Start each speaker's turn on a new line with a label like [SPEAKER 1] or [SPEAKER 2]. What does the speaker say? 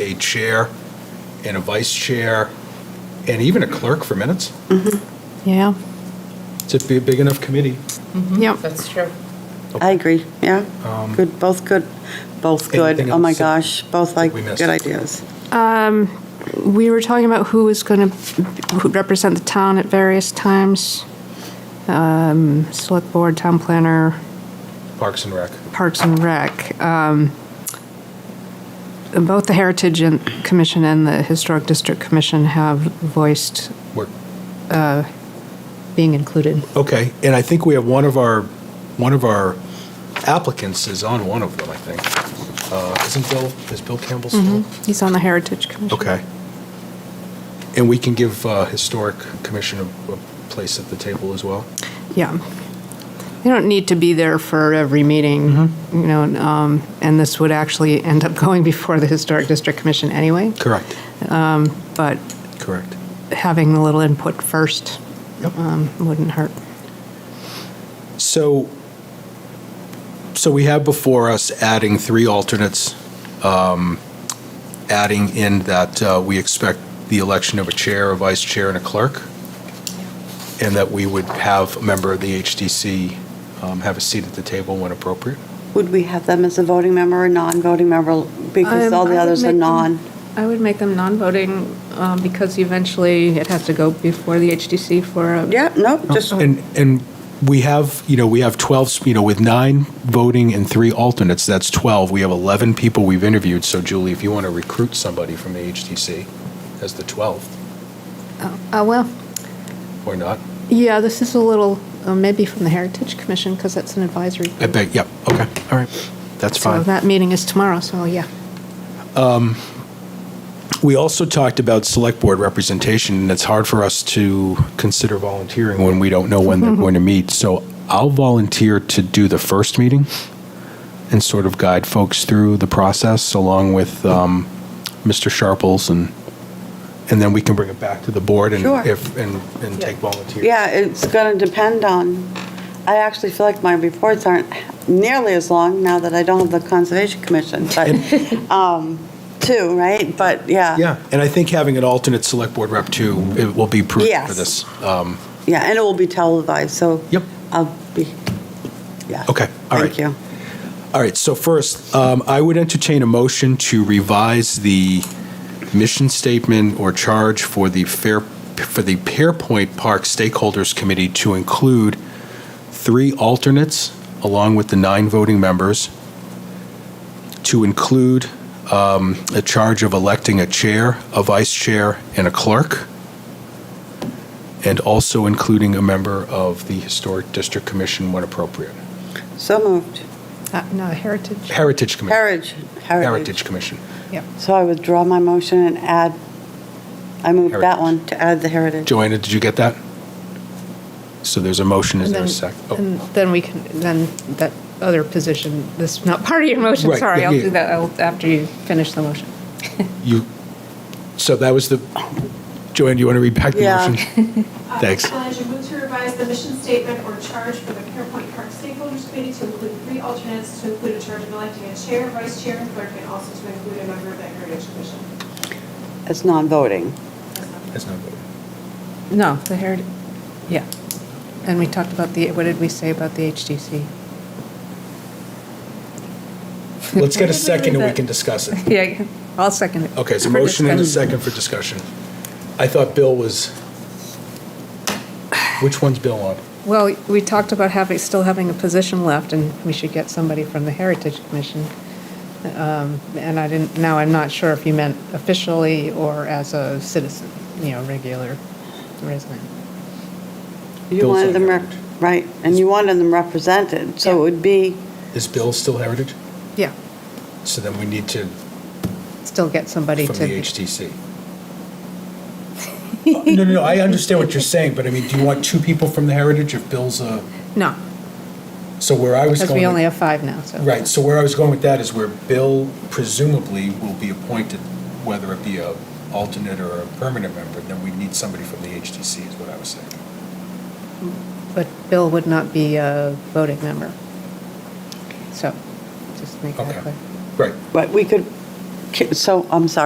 [SPEAKER 1] a chair and a vice chair, and even a clerk for minutes.
[SPEAKER 2] Yeah,
[SPEAKER 1] It's a big big enough committee.
[SPEAKER 2] yep.
[SPEAKER 3] That's true.
[SPEAKER 1] Okay.
[SPEAKER 4] I agree, yeah. Good, both good, both good.
[SPEAKER 1] Um, anything
[SPEAKER 4] Oh, my
[SPEAKER 1] else that-
[SPEAKER 4] gosh, both like
[SPEAKER 1] we missed?
[SPEAKER 4] good ideas.
[SPEAKER 2] We were talking about who was going to represent the town at various times. Um, Select Board, Town Planner,
[SPEAKER 1] Parks and Rec.
[SPEAKER 2] Parks and Rec. Um, and Both the Heritage and- Commission and the Historic District Commission have voiced
[SPEAKER 1] We're-
[SPEAKER 2] being included.
[SPEAKER 1] Okay, and I think we have one of our, one of our applicants is on one of them, I think. Uh, Isn't Bill, is Bill Campbell still?
[SPEAKER 2] He's on the Heritage Commission.
[SPEAKER 1] Okay. And we can give uh, Historic Commission a a place at the table as well?
[SPEAKER 2] Yeah. They don't need to be there for every meeting, you know, and, um, and this would actually end up going before the Historic District Commission anyway,
[SPEAKER 1] Correct.
[SPEAKER 2] but
[SPEAKER 1] Correct.
[SPEAKER 2] having a little input first
[SPEAKER 1] Yep.
[SPEAKER 2] um, wouldn't hurt.
[SPEAKER 1] So, so we have before us adding three alternates, um, adding in that uh, we expect the election of a chair, a vice chair, and a clerk, and that we would have a member of the HDC um, have a seat at the table when appropriate.
[SPEAKER 4] Would we have them as a voting member or non-voting member? Because
[SPEAKER 2] Um, I
[SPEAKER 4] all the
[SPEAKER 2] would
[SPEAKER 4] others are
[SPEAKER 2] make them-
[SPEAKER 4] non.
[SPEAKER 2] I would make them non-voting um, because eventually it has to go before the HDC for a.
[SPEAKER 4] Yeah, no, just,
[SPEAKER 1] And, and we have, you know, we have 12, you know, with nine voting and three alternates, that's 12. We have 11 people we've interviewed, so Julie, if you want to recruit somebody from the HDC as the 12th,
[SPEAKER 2] Uh, well,
[SPEAKER 1] or not?
[SPEAKER 2] yeah, this is a little, uh, maybe from the Heritage Commission because that's an advisory.
[SPEAKER 1] I beg, yep, okay, all right, that's
[SPEAKER 2] So
[SPEAKER 1] fine.
[SPEAKER 2] that meeting is tomorrow, so yeah.
[SPEAKER 1] We also talked about select board representation, and it's hard for us to consider volunteering when we don't know when
[SPEAKER 4] Mm-hmm.
[SPEAKER 1] they're going to meet, so I'll volunteer to do the first meeting and sort of guide folks through the process along with um, Mr. Sharples, and, and then we can bring it back to the board and
[SPEAKER 4] Sure.
[SPEAKER 1] if, and, and take volunteers.
[SPEAKER 4] yeah, it's going to depend on, I actually feel like my reports aren't nearly as long now that I don't have the Conservation Commission, but, um, two, right? But, yeah.
[SPEAKER 1] Yeah, and I think having an alternate select board rep too, it will be prudent for
[SPEAKER 4] Yes.
[SPEAKER 1] this.
[SPEAKER 4] Yeah, and it will be televised, so.
[SPEAKER 1] Yep.
[SPEAKER 4] I'll be, yeah.
[SPEAKER 1] Okay, all right.
[SPEAKER 4] Thank you.
[SPEAKER 1] All right, so first, um, I would entertain a motion to revise the mission statement or charge for the Fair, for the Pearpoint Park Stakeholders Committee to include three alternates along with the nine voting members, to include um, a charge of electing a chair, a vice chair, and a clerk, and also including a member of the Historic District Commission when appropriate.
[SPEAKER 4] So moved.
[SPEAKER 2] Uh, No, Heritage.
[SPEAKER 1] Heritage Commission.
[SPEAKER 4] Heritage, heritage.
[SPEAKER 1] Heritage Commission.
[SPEAKER 2] Yep.
[SPEAKER 4] So I withdraw my motion and add, I moved that
[SPEAKER 1] Heritage.
[SPEAKER 4] one to add the heritage.
[SPEAKER 1] Joanna, did you get that? So there's a motion, is there a sec? oh,
[SPEAKER 2] And then we can, then that other position, this is not part of your motion,
[SPEAKER 1] Right,
[SPEAKER 2] sorry,
[SPEAKER 1] yeah,
[SPEAKER 2] I'll
[SPEAKER 1] yeah.
[SPEAKER 2] do that I'll- after you finish the motion.
[SPEAKER 1] You, so that was the, Joanna, do you want to read back the
[SPEAKER 4] Yeah.
[SPEAKER 1] motion? Thanks.
[SPEAKER 5] Challenge and move to revise the mission statement or charge for the Pierpoint Park Stakeholders Committee to include three alternates, to include a charge of electing a chair, vice chair, and clerk, and also to include a member of the Heritage Commission.
[SPEAKER 4] It's non-voting.
[SPEAKER 1] That's not good.
[SPEAKER 2] No, the Heritage, yeah. And we talked about the, what did we say about the HDC?
[SPEAKER 1] Let's get a second and we can discuss it.
[SPEAKER 2] Yeah, I'll second it.
[SPEAKER 1] Okay, so
[SPEAKER 2] For
[SPEAKER 1] motion and a
[SPEAKER 2] discussion.
[SPEAKER 1] second for discussion. I thought Bill was, which one's Bill on?
[SPEAKER 2] Well, we talked about having, still having a position left, and we should get somebody from the Heritage Commission. Um, And I didn't, now I'm not sure if you meant officially or as a citizen, you know, regular resident.
[SPEAKER 4] You
[SPEAKER 1] Bill's on
[SPEAKER 4] wanted them, rep-
[SPEAKER 1] heritage.
[SPEAKER 4] right, and you wanted them represented, so it would be,
[SPEAKER 1] Is Bill still Heritage?
[SPEAKER 2] Yeah,
[SPEAKER 1] So then we need to, from
[SPEAKER 2] still get
[SPEAKER 1] the
[SPEAKER 2] somebody to.
[SPEAKER 1] HTC. No, no, no, I understand what you're saying, but I mean, do you want two people from the Heritage if Bill's a?
[SPEAKER 2] No,
[SPEAKER 1] So where I was
[SPEAKER 2] because
[SPEAKER 1] going.
[SPEAKER 2] we
[SPEAKER 1] with-
[SPEAKER 2] only have five now, so.
[SPEAKER 1] Right, so where I was going with that is where Bill presumably will be appointed, whether it be a alternate or a permanent member, then we need somebody from the HTC is what I was saying.
[SPEAKER 2] But Bill would not be a voting member. So, just make that
[SPEAKER 1] Okay,
[SPEAKER 2] clear.
[SPEAKER 1] right.
[SPEAKER 4] but we could, so, I'm sorry.